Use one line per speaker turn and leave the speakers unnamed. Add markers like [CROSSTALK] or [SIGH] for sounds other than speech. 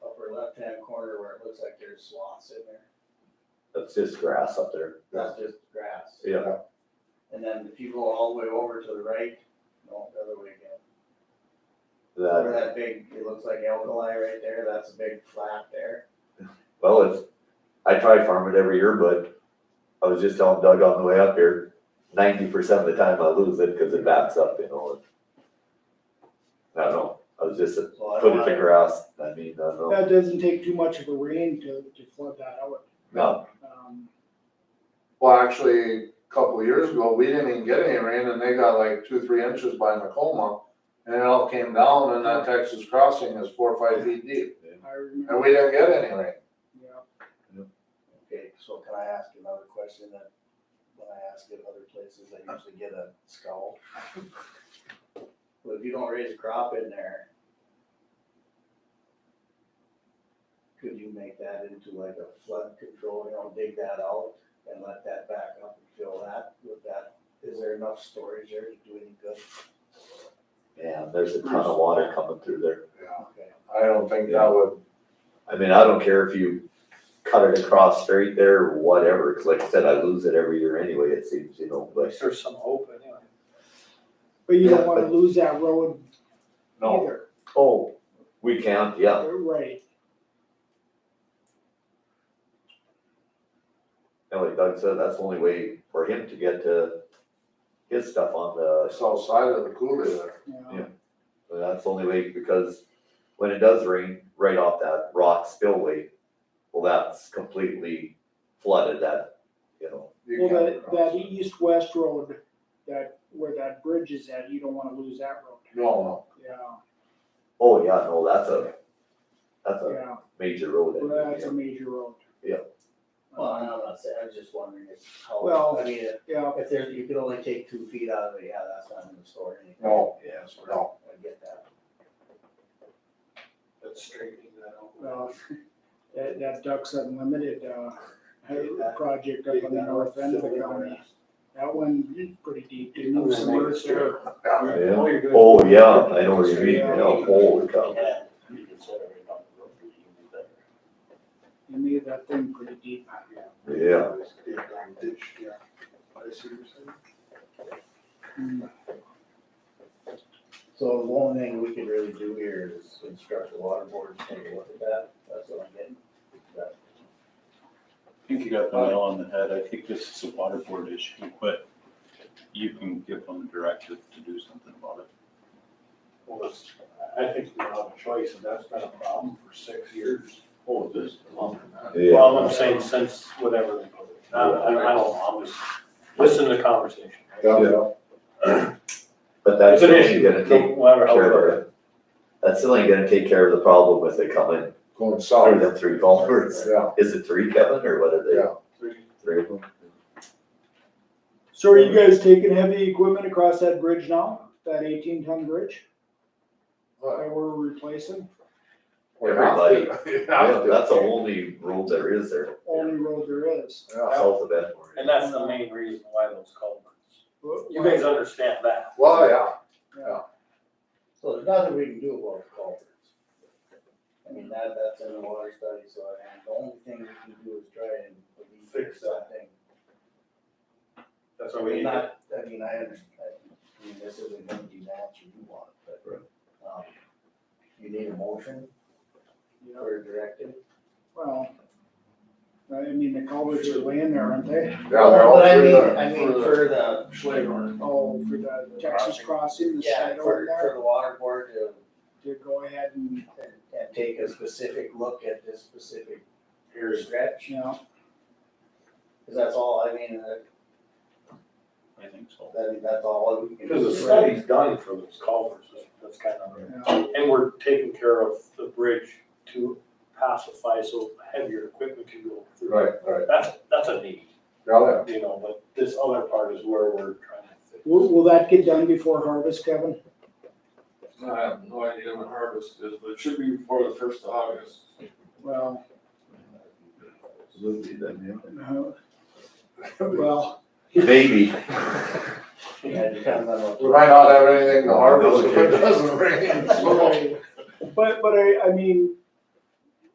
left-hand corner where it looks like there's swaths in there,
That's just grass up there.
that's just grass.
Yeah,
And then if you go all the way over to the right, no, the other way again. Over that
that,
big, it looks like alkali right there, that's a big flat there.
well, it's, I try farm it every year, but I was just telling Doug on the way up here, ninety percent of the time I lose it because it backs up, you know. and- I don't know, I was just
So I don't
putting
wanna-
to grass, I mean, I don't know,
That doesn't take too much of a rain to, to flood that out.
no,
Um,
Well, actually, a couple of years ago, we didn't even get any rain and they got like two, three inches by Macoma. And it all came down and that Texas crossing is four or five feet deep
I
and
remember,
we didn't get any rain.
yeah.
Okay, so can I ask another question that, when I ask it other places, I usually get a scowl? Well, if you don't raise a crop in there, could you make that into like a flood control, you know, dig that out and let that back up and fill that with that? Is there enough storage there to do any good?
man, there's a ton of water coming through there.
Okay.
I don't think that would,
I mean, I don't care if you cut it across straight there, or whatever, 'cause like I said, I lose it every year anyway, it seems, you know, but.
There's some hope anyway.
But you
Yeah,
don't wanna
but-
lose that road
no,
either.
Oh, we can't, yeah,
Right,
and like Doug said, that's the only way for him to get to his stuff on the,
south side of the cooler there.
yeah.
Yeah. that's the only way, because when it does rain, right off that rock spillway, well, that's completely flooded, that, you know,
You
Well,
can't
that,
cross
that e-
it.
east-west road, that, where that bridge is at, you don't wanna lose that road.
No,
Yeah,
oh, yeah, no, that's a, that's a
yeah,
major road. I
well,
think,
that's a
yeah.
major road.
Yeah.
Well, I'm not saying, I was just wondering if, how,
Well-
I mean, if-
Yeah,
if there's, you could only take two feet out of it, yeah, that's not gonna store anything.
no,
Yeah,
That's where
no.
I get that.
That's straightening that out.
well, [LAUGHS] that, that Ducks Unlimited, uh,
Yeah.
project up on the north end of the county, that one is pretty deep, they moved some earth there.
Yeah.
Yeah.
Oh, you're good.
oh, yeah, I know what you mean, yeah, holy cow.
Yeah.
They made that thing pretty deep.
Yeah.
Yeah. I see what you're saying.
Mm,
So the only thing we could really do here is instruct the water board to take a look at that, that's what I'm getting. But
I think you got the nail on the head. I think this is a water board issue, but you can give them directive to do something about it.
Well, it's, I I think we don't have a choice, and that's been a problem for six years. Oh, this. Well,
Yeah,
I'm saying since whatever they put it, I, I I don't know, I'm just listening to the conversation.
Yeah. but that's
It's an
still
issue,
gonna take
no matter how.
care of it. That's still ain't gonna take care of the problem if they come in
going
through
south,
them three culverts.
yeah.
Is it three, Kevin, or what are they?
Yeah.
Three of them?
So are you guys taking heavy equipment across that bridge now, that eighteen ton bridge
Well,
that we're replacing?
you have to.
Everybody.
You have
Yeah,
to.
that's the only road there is there,
Only road there is.
Yeah.
south of Edmore.
And that's the main reason why those culverts. You guys understand that.
Well, yeah,
So there's nothing we can do about the culverts. I mean, that, that's in the water study, so I mean, the only thing we can do is try and fix that thing.
That's
I
why we
mean,
need to
not, I mean, I understand, I mean, this isn't gonna be that you want, but,
Right.
um, you need a motion or a directive?
Well, I mean, the culverts are laying there, aren't they?
yeah, they're all
But I
through
mean,
there.
I mean, for the,
Schleber.
Oh, for the Texas crossing, the
Yeah,
side
for,
over
for
there,
the water board to,
to go ahead and,
and, and take a specific look at this specific
Here's,
stretch,
you know,
cause that's all, I mean, that,
I think so.
that- that's all we can do.
because the study's done for those culverts, that's kind of.
you know,
And we're taking care of the bridge to pacify so heavier equipment can go through.
Right, right,
That's, that's a need,
yeah,
you know, but this other part is where we're trying to fix.
will, will that get done before harvest, Kevin?
I have no idea when harvest is, but it should be before the first of August.
Well, [LAUGHS]
Absolutely, then,
uh, well,
yeah. Maybe. [LAUGHS]
Yeah, it depends on what.
we
[LAUGHS]
might not have anything to harvest if it doesn't rain, so.
right. but, but I, I mean,